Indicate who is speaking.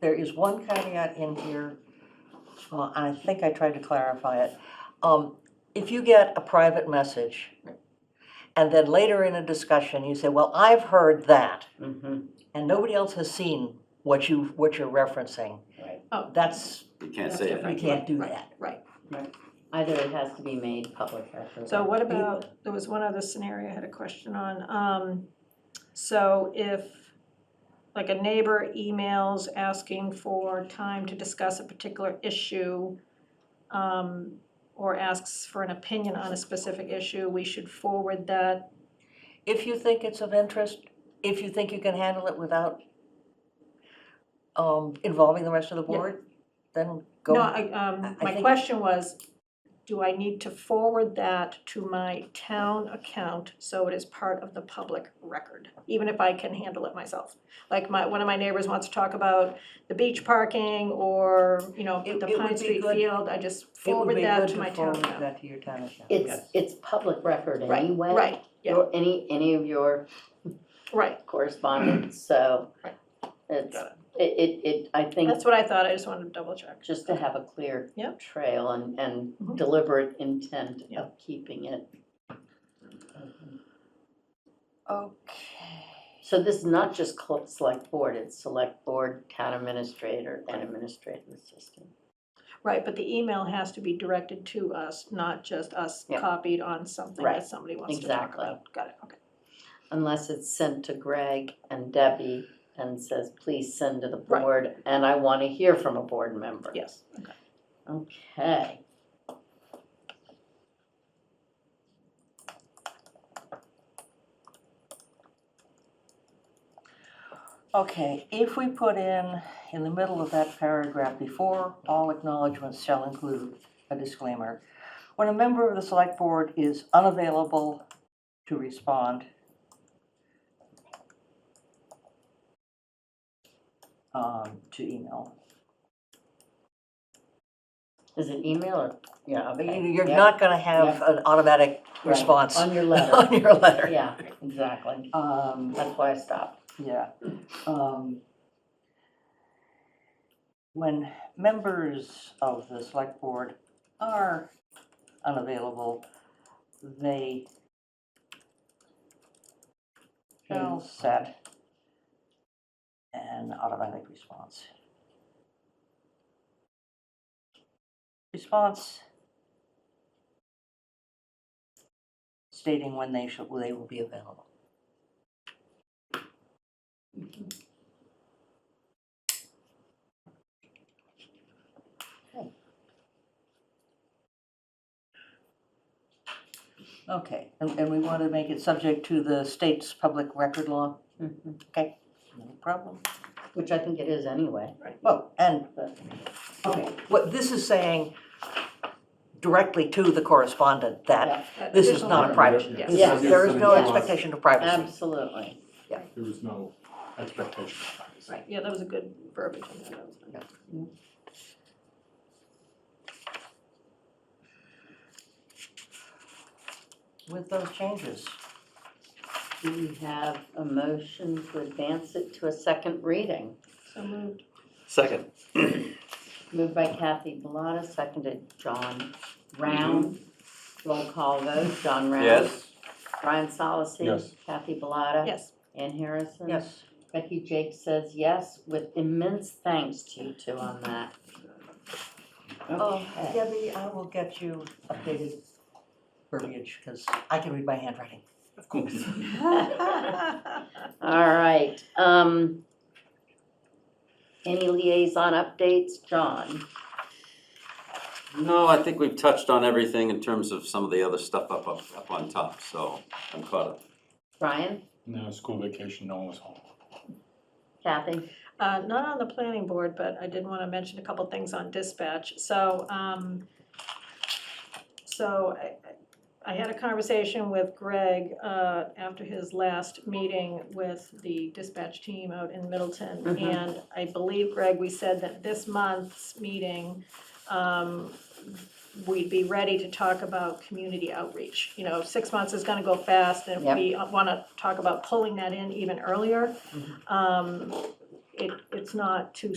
Speaker 1: there is one caveat in here, well, I think I tried to clarify it. Um, if you get a private message, and then later in a discussion, you say, well, I've heard that,
Speaker 2: Mm-hmm,
Speaker 1: and nobody else has seen what you, what you're referencing,
Speaker 2: right.
Speaker 3: Oh,
Speaker 1: that's,
Speaker 4: You can't say
Speaker 1: we
Speaker 4: it.
Speaker 1: can't do
Speaker 3: Right.
Speaker 1: that.
Speaker 3: right.
Speaker 2: Either it has to be made public record.
Speaker 5: So what about, there was one other scenario I had a question on. Um, So if, like, a neighbor emails asking for time to discuss a particular issue um, or asks for an opinion on a specific issue, we should forward that.
Speaker 1: If you think it's of interest, if you think you can handle it without um, involving the rest of the
Speaker 5: Yeah.
Speaker 1: board, then go.
Speaker 5: No, I, um,
Speaker 1: I- I
Speaker 5: my
Speaker 1: think-
Speaker 5: question was, do I need to forward that to my town account so it is part of the public record? Even if I can handle it myself? Like my, one of my neighbors wants to talk about the beach parking or, you know,
Speaker 1: It-
Speaker 5: the
Speaker 1: it would
Speaker 5: Pine
Speaker 1: be
Speaker 5: Street
Speaker 1: good-
Speaker 5: field, I just
Speaker 1: It would
Speaker 5: forward
Speaker 1: be
Speaker 5: that
Speaker 1: good
Speaker 5: to my
Speaker 1: to
Speaker 5: town
Speaker 1: forward
Speaker 5: account.
Speaker 1: that to your town account.
Speaker 2: It's, it's public record
Speaker 5: Right,
Speaker 2: anyway.
Speaker 5: Right, yeah.
Speaker 2: Your, any, any of your
Speaker 5: right,
Speaker 2: correspondence, so
Speaker 5: Right.
Speaker 2: it's,
Speaker 5: Got
Speaker 2: it, it, it, I think,
Speaker 5: that's what I thought, I just wanted to double check.
Speaker 2: just to have a clear
Speaker 5: Yep.
Speaker 2: trail and, and
Speaker 5: Mhm.
Speaker 2: deliberate intent
Speaker 5: Yeah.
Speaker 2: of keeping it.
Speaker 1: Okay.
Speaker 2: So this is not just cl- select board, it's select board, town administrator, and administrative assistant.
Speaker 5: Right, but the email has to be directed to us, not just us
Speaker 2: Yeah.
Speaker 5: copied on something
Speaker 2: Right,
Speaker 5: that somebody wants to talk
Speaker 2: exactly.
Speaker 5: about. Got it, okay.
Speaker 2: Unless it's sent to Greg and Debbie and says, please send to the
Speaker 5: Right.
Speaker 2: board, and I want to hear from a board member.
Speaker 5: Yes,
Speaker 2: Okay.
Speaker 1: Okay, if we put in, in the middle of that paragraph before, all acknowledgements shall include a disclaimer. When a member of the select board is unavailable to respond, um, to email,
Speaker 2: Is it email or, yeah, okay.
Speaker 1: you're
Speaker 2: yeah,
Speaker 1: not gonna have an automatic
Speaker 2: right,
Speaker 1: response
Speaker 2: On your letter.
Speaker 1: on your letter.
Speaker 2: Yeah, exactly.
Speaker 1: Um,
Speaker 2: That's why I stopped.
Speaker 1: Yeah. um, When members of the select board are unavailable, they shall set an automatic response. Response stating when they shall, they will be available. Okay, and, and we want to make it subject to the state's public record law?
Speaker 2: Mhm.
Speaker 1: No problem.
Speaker 2: Which I think it is anyway.
Speaker 1: Well, and, uh, okay, what this is saying directly to the correspondent that
Speaker 5: that
Speaker 1: this is
Speaker 5: additional-
Speaker 1: not a private,
Speaker 5: Yes.
Speaker 1: this
Speaker 2: Yes.
Speaker 1: is- there is no
Speaker 2: Yes.
Speaker 1: expectation of
Speaker 2: Um,
Speaker 1: privacy.
Speaker 2: Absolutely.
Speaker 6: There was no expectation of privacy.
Speaker 5: Right, yeah, that was a good verbiage in there, that was good.
Speaker 1: With those changes,
Speaker 2: Do we have a motion to advance it to a second reading?
Speaker 5: So moved.
Speaker 4: Second.
Speaker 2: Moved by Kathy Bellata, seconded John Round.
Speaker 1: Mm-hmm.
Speaker 2: Roll call vote, John Round.
Speaker 4: Yes.
Speaker 2: Brian Solacey.
Speaker 6: Yes.
Speaker 2: Kathy Bellata.
Speaker 5: Yes,
Speaker 2: Ann Harrison.
Speaker 1: yes,
Speaker 2: Becky Jake says yes, with immense thanks to you two on that.
Speaker 1: Oh,
Speaker 2: Okay.
Speaker 1: Debbie, I will get you updated verbiage, because I can read my handwriting.
Speaker 4: Of course.
Speaker 2: All right, um, any liaison updates, John?
Speaker 4: No, I think we've touched on everything in terms of some of the other stuff up, up, up on top, so I'm caught up.
Speaker 2: Brian?
Speaker 6: No, school vacation, no one was home.
Speaker 2: Kathy?
Speaker 5: uh, not on the planning board, but I did wanna mention a couple things on dispatch, so, um, so I, I had a conversation with Greg, uh, after his last meeting with the dispatch team out in Middleton.
Speaker 2: Mhm.
Speaker 5: And I believe, Greg, we said that this month's meeting, um, we'd be ready to talk about community outreach. You know, six months is gonna go fast, and
Speaker 2: Yep.
Speaker 5: we wanna talk about pulling that in even earlier. Um, It, it's not too